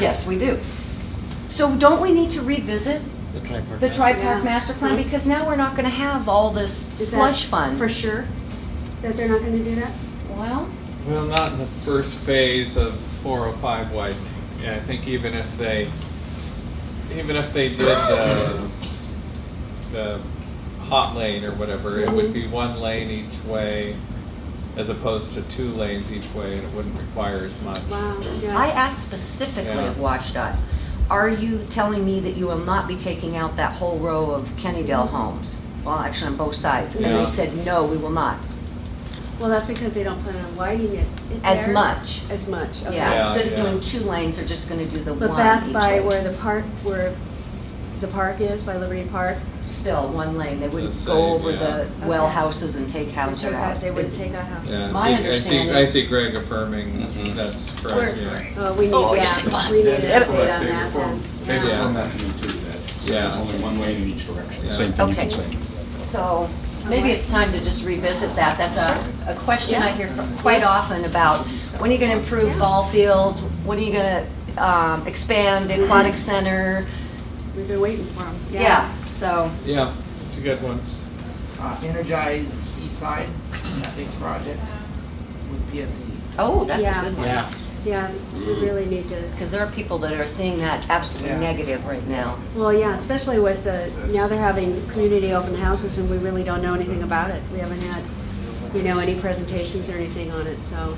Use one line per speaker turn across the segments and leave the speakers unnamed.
Yes, we do. So don't we need to revisit
The tri-park.
the
master.
tri-park master plan?
Yeah.
Because now we're not gonna have all this
Is that
slush fund.
For sure, that they're not gonna do that?
Well,
Well, not in the first phase of 405 widening. Yeah, I think even if they, even if they did the, the hot lane or whatever, it would be one lane each way as opposed to two lanes each way and it wouldn't require as much.
Wow,
I
yeah.
asked specifically
Yeah.
of WashDOT, are you telling me that you will not be taking out that whole row of Kennydale
Mm-hmm.
homes? Well, actually on both sides. And
Yeah.
they said, no, we will not,
Well, that's because they don't plan on widening it. in
as
there.
much.
As much, okay.
Yeah,
Yeah,
instead of
yeah.
doing two lanes, they're just gonna do the
But
one
back
each
by
way.
where the park, where the park is, by Liberty Park,
Still, one lane, they wouldn't
The
go
same,
over the
yeah.
well
Okay.
houses and take
they
houses
took
out.
out- they would
It's-
take out half.
Yeah, I
My
see-
understanding-
I see, I see Greg affirming
Mm-hmm.
Mhm.
that's correct.
Where's
yeah.
Greg?
Oh, we need,
Oh, you're sitting
yeah,
behind
we need
me.
an
That's
update on that then.
They
Yeah.
reform that to me too, that, so there's
Yeah.
only one lane in each direction,
Yeah.
same thing you
Okay.
can say.
So maybe it's time to just revisit that. That's a, a question I hear fr- quite often about, when are you gonna improve ball fields? When are you gonna, um, expand the aquatic center?
We've been waiting for them.
Yeah, so,
Yeah, it's a good one.
uh, Energize East Side, that big project with E. PSE.
oh, that's
Yeah.
a good one.
Yeah,
Yeah, we
Mm-hmm.
really need to,
Because there are people that are seeing that absolutely
Yeah.
negative right now.
well, yeah, especially with the, now they're having community open houses and we really don't know anything about it. We haven't had, you know, any presentations or anything on it, so.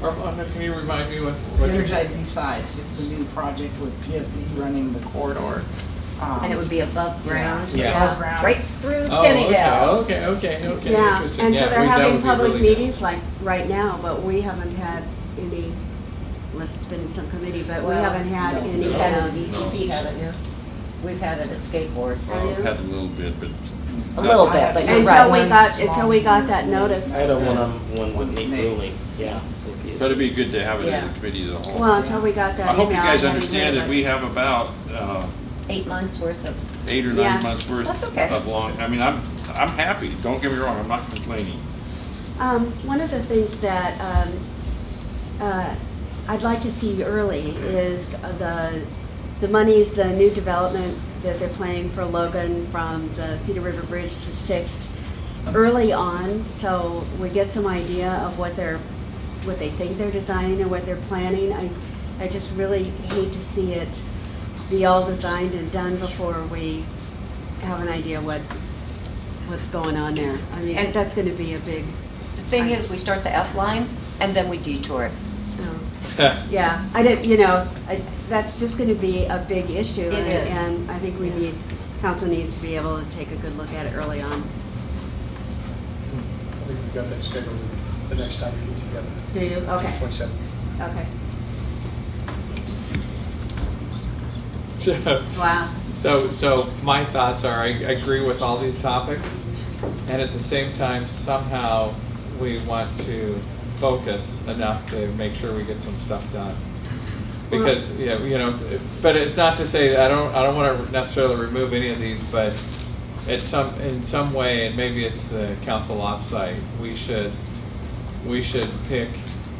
Arvada, can you remind me what? what you-
Energize East Side, it's the new project with PSE running the corridor. um,
And it would be above ground.
Yeah.
Above ground.
Right through
Oh,
Kennydale.
okay, okay, okay, okay.
Yeah,
interesting.
and so
Yeah,
they're
we- that would
having
be
public
really good.
meetings like right now, but we haven't had any, unless it's been in some committee, but we
Well,
haven't had
no.
any.
You had it at
um,
ETP, haven't you? We've had it at skateboard.
Have you?
I've had a little bit, but
Um,
A little bit, but you're
Until we
right.
got, until we got that notice.
I had a one-on-one with
One
Nate
Nate.
Rooney, yeah.
but it'd be good to have it in
Yeah.
the committee of the whole.
Well, until we got that
I
email.
hope you guys
hadn't
understand
heard
that we have about, uh,
Eight months worth of,
eight or
Yeah.
nine months worth
That's okay.
of long, I mean, I'm, I'm happy, don't get me wrong, I'm not complaining.
Um, one of the things that, um, uh, I'd like to see early is uh, the, the monies, the new development that they're planning for Logan from the Cedar River Bridge to Sixth early on, so we get some idea of what they're, what they think they're designing and what they're planning. I, I just really hate to see it be all designed and done before we have an idea what, what's going on there. I mean, 'cause
And-
that's gonna be a big,
the thing is, we start the F line and then we detour it.
um, Yeah, I didn't, you know, I- that's just going to be a big issue.
It
and-
is.
And I think we need, council needs to be able to take a good look at it early on.
I think we've got that scheduled the next time we get together.
Do you? Okay,
Twenty-seven.
okay.
So-
Wow.
So, so my thoughts are, I I agree with all these topics, and at the same time, somehow, we want to focus enough to make sure we get some stuff done. Because, yeah, you know, but it's not to say, I don't, I don't want to necessarily remove any of these, but at some, in some way, and maybe it's the council offsite, we should, we should pick,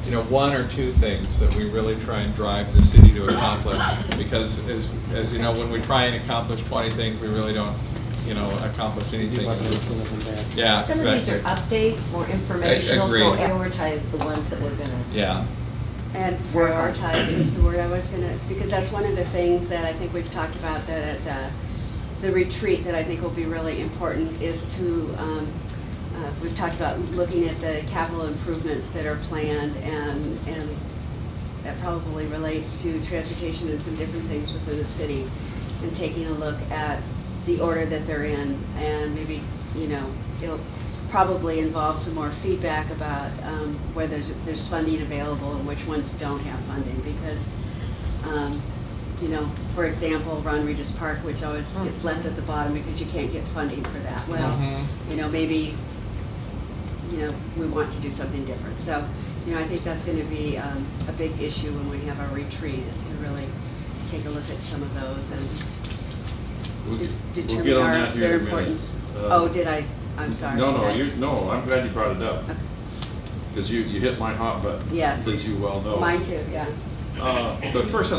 you know, one or two things that we really try and drive the city to accomplish. Because as, as you know, when we try and accomplish twenty things, we really don't, you know, accomplish anything. Yeah,
Some of these are
exactly.
updates, more informational,
agree.
so prioritize the ones that we're gonna.
Yeah.
And
Work on.
prioritize is the word I was going to, because that's one of the things that I think we've talked about that at the, the retreat that I think will be really important is to, um, uh, we've talked about looking at the capital improvements that are planned and, and that probably relates to transportation and some different things within the city, and taking a look at the order that they're in, and maybe, you know, it'll probably involve some more feedback about um, whether there's funding available and which ones don't have funding, because, um, you know, for example, Ron Regis Park, which always gets left at the bottom because you can't get funding for that. Well,
Mhm.
you know, maybe you know, we want to do something different. So, you know, I think that's going to be um, a big issue when we have our retreat is to really take a look at some of those and
We'll
de-
get- we'll
determine
get on
our,
that here
their
in a minute.
importance.
Uh,
oh, did I? I'm sorry.
No, no,
Did I-
you, no, I'm glad you brought it up,
Okay.
because you, you hit my hot button.
Yes.
As you well know.
Mine too, yeah.
Uh, But first, I'd